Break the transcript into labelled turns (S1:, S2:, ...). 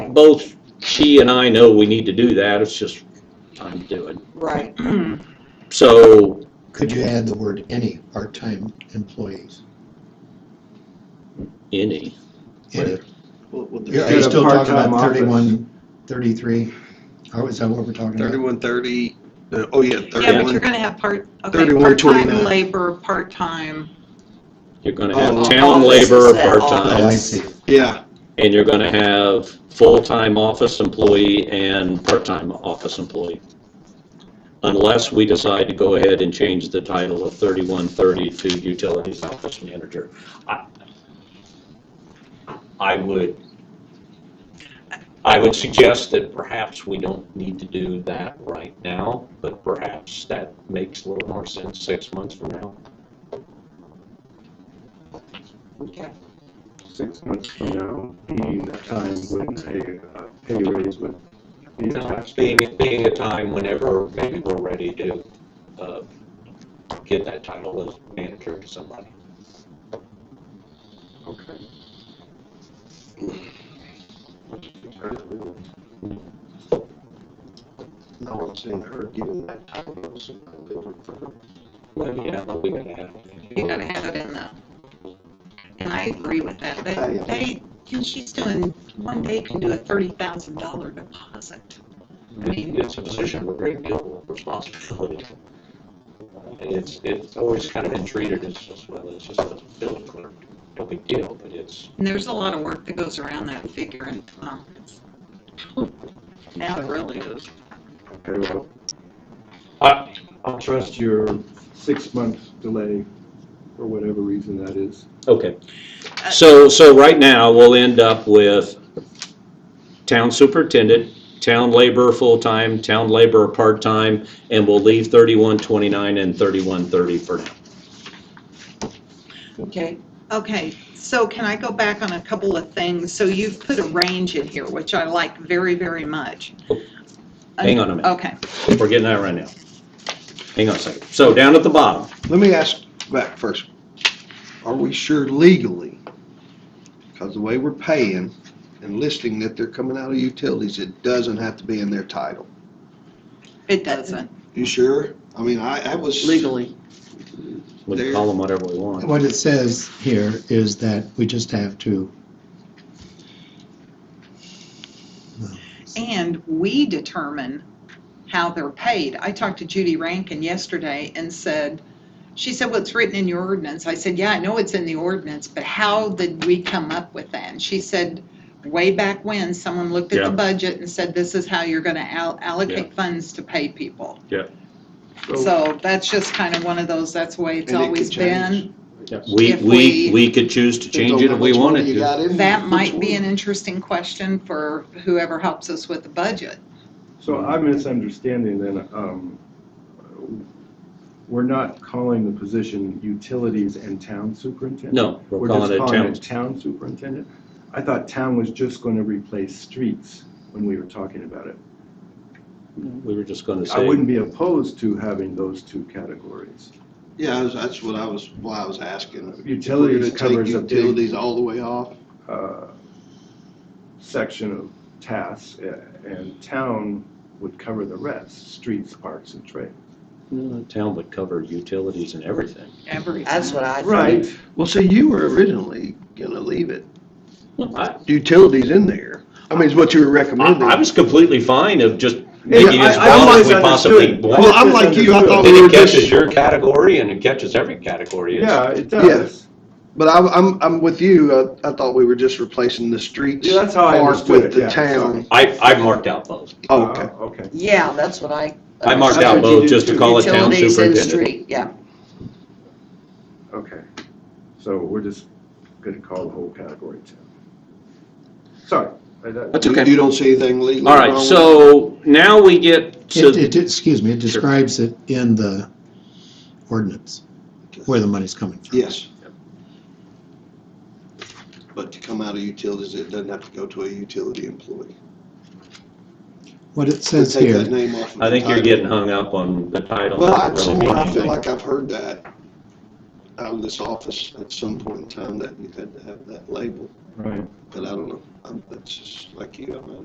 S1: both she and I know we need to do that, it's just time to do it.
S2: Right.
S1: So,
S3: Could you add the word any part-time employees?
S1: any,
S3: Any.
S4: We'll- we'll do
S3: Yeah, Are
S4: that.
S3: you still talking
S5: part-time
S3: about
S5: office.
S3: thirty-one, thirty-three? Or is that what we're talking about?
S4: Thirty-one thirty, uh, oh yeah,
S2: Yeah, but you're
S4: thirty-one,
S2: gonna have part, okay,
S4: 31,
S2: part-time
S4: 29.
S2: labor, part-time.
S1: you're gonna have
S4: Oh,
S1: town
S2: all this is
S1: labor,
S2: it, all
S4: Uh,
S3: Oh, I
S1: part-time,
S2: this.
S3: see.
S4: yeah,
S1: and you're gonna have full-time office employee and part-time office employee. Unless we decide to go ahead and change the title of thirty-one thirty to utilities office manager. I- I would, I would suggest that perhaps we don't need to do that right now, but perhaps that makes a little more sense six months from now.
S2: Okay.
S5: six months from now, being the time when a uh, pay raise would be attached. to
S1: Being, being a time whenever maybe we're ready to, uh, give that title of manager to somebody.
S5: Okay. No one's in her giving that title. so I'm going for-
S1: Well, yeah, but we gotta have.
S2: You're gonna have it in the, and I agree with that. They, they, and she's doing, one day can do a thirty thousand dollar deposit.
S1: I mean, it's a position with a great deal of responsibility. And it's, it's always kind of been treated as just, well, it's just a building clerk, no big deal, but it's,
S2: And there's a lot of work that goes around that figure and, um, now it really is.
S5: Okay, well,
S1: I,
S5: I'll trust your six months delay for whatever reason that is.
S1: okay. So, so right now, we'll end up with town superintendent, town laborer full-time, town laborer part-time, and we'll leave thirty-one twenty-nine and thirty-one thirty for now.
S2: Okay. Okay, so can I go back on a couple of things? So you've put a range in here, which I like very, very much.
S1: Hang on a minute.
S2: Okay.
S1: We're getting that right now. Hang on a second. So down at the bottom,
S4: let me ask back first, are we sure legally? Because the way we're paying and listing that they're coming out of utilities, it doesn't have to be in their title.
S2: It doesn't.
S4: You sure? I mean, I, I was.
S6: legally.
S1: we can call them whatever we want.
S3: What it says here is that we just have to,
S2: And we determine how they're paid. I talked to Judy Rankin yesterday and said, she said, well, it's written in your ordinance. I said, yeah, I know it's in the ordinance, but how did we come up with that? And she said, way back when, someone looked at
S1: Yeah.
S2: the budget and said, this is how you're gonna al- allocate funds to pay people.
S1: Yeah.
S2: So that's just kind of one of those, that's the way it's
S4: And it could
S2: always been.
S1: We,
S2: If
S1: we,
S2: we-
S1: we could choose to change it if we wanted to.
S2: That might be an interesting question for whoever helps us with the budget.
S5: So I'm misunderstanding then, um, we're not calling the position utilities and town superintendent?
S1: No, we're calling
S5: just
S1: it
S5: calling it
S1: town.
S5: town superintendent? I thought town was just going to replace streets when we were talking about it.
S1: We were just gonna
S5: I
S1: say,
S5: wouldn't be opposed to having those two categories.
S4: Yeah, I was- that's what I was, why I was asking.
S5: Utilities
S4: We're gonna take
S5: covers a big-
S4: Utilities all the way off?
S5: uh, Section of tasks, uh, and town would cover the rest, streets, parks, and trade.
S1: "No, the "Uh, town would cover utilities and everything.
S2: Every
S6: That's what I.
S5: Right,
S4: Well, see, you were originally gonna leave it,
S1: Well, I,
S4: utilities in there. I mean, is what you were
S1: I
S4: recommending.
S1: I was completely fine of just
S5: Yeah,
S1: making it as
S5: I- I
S1: broad as we
S5: misunderstood.
S1: possibly want.
S4: Well, I'm like you, I thought we
S1: And
S4: were
S1: it catches
S4: just,
S1: your category and it catches every category. It's-
S5: yeah, it does.
S4: but I'm, I'm, I'm with you, I, I thought we were just replacing the streets.
S5: Yeah, that's how I
S4: part
S5: understood it,
S4: With the
S5: yeah.
S4: town,
S1: I, I marked out both.
S4: Oh, okay.
S5: Uh, Okay.
S6: Yeah, that's what I. uh,
S1: I marked
S5: That's
S1: out
S5: what you
S1: both
S5: do
S1: just to
S5: too.
S1: call it town
S6: Utilities and
S1: superintendent.
S6: street, yeah.
S5: Okay, so we're just gonna call the whole category ten. Sorry. I- that-
S1: That's okay.
S4: You don't see anything legally
S1: All
S4: wrong?
S1: right, so now we get
S3: it,
S1: to,
S3: it, excuse me, it describes it in the ordinance, where the money's coming from.
S4: Yes. But to come out of utilities, it doesn't have to go to a utility employee.
S3: What it says
S4: Take that
S3: here,
S4: name off of the
S1: I think you're
S4: title.
S1: getting hung up on the title.
S4: Well,
S1: not
S4: I,
S1: really
S4: somewhere, I
S1: meaning
S4: feel
S1: anything.
S4: like I've heard that out of this office at some point in time, that you had to have that label,
S5: Right.
S4: but I don't know, I'm, that's just like you, I'm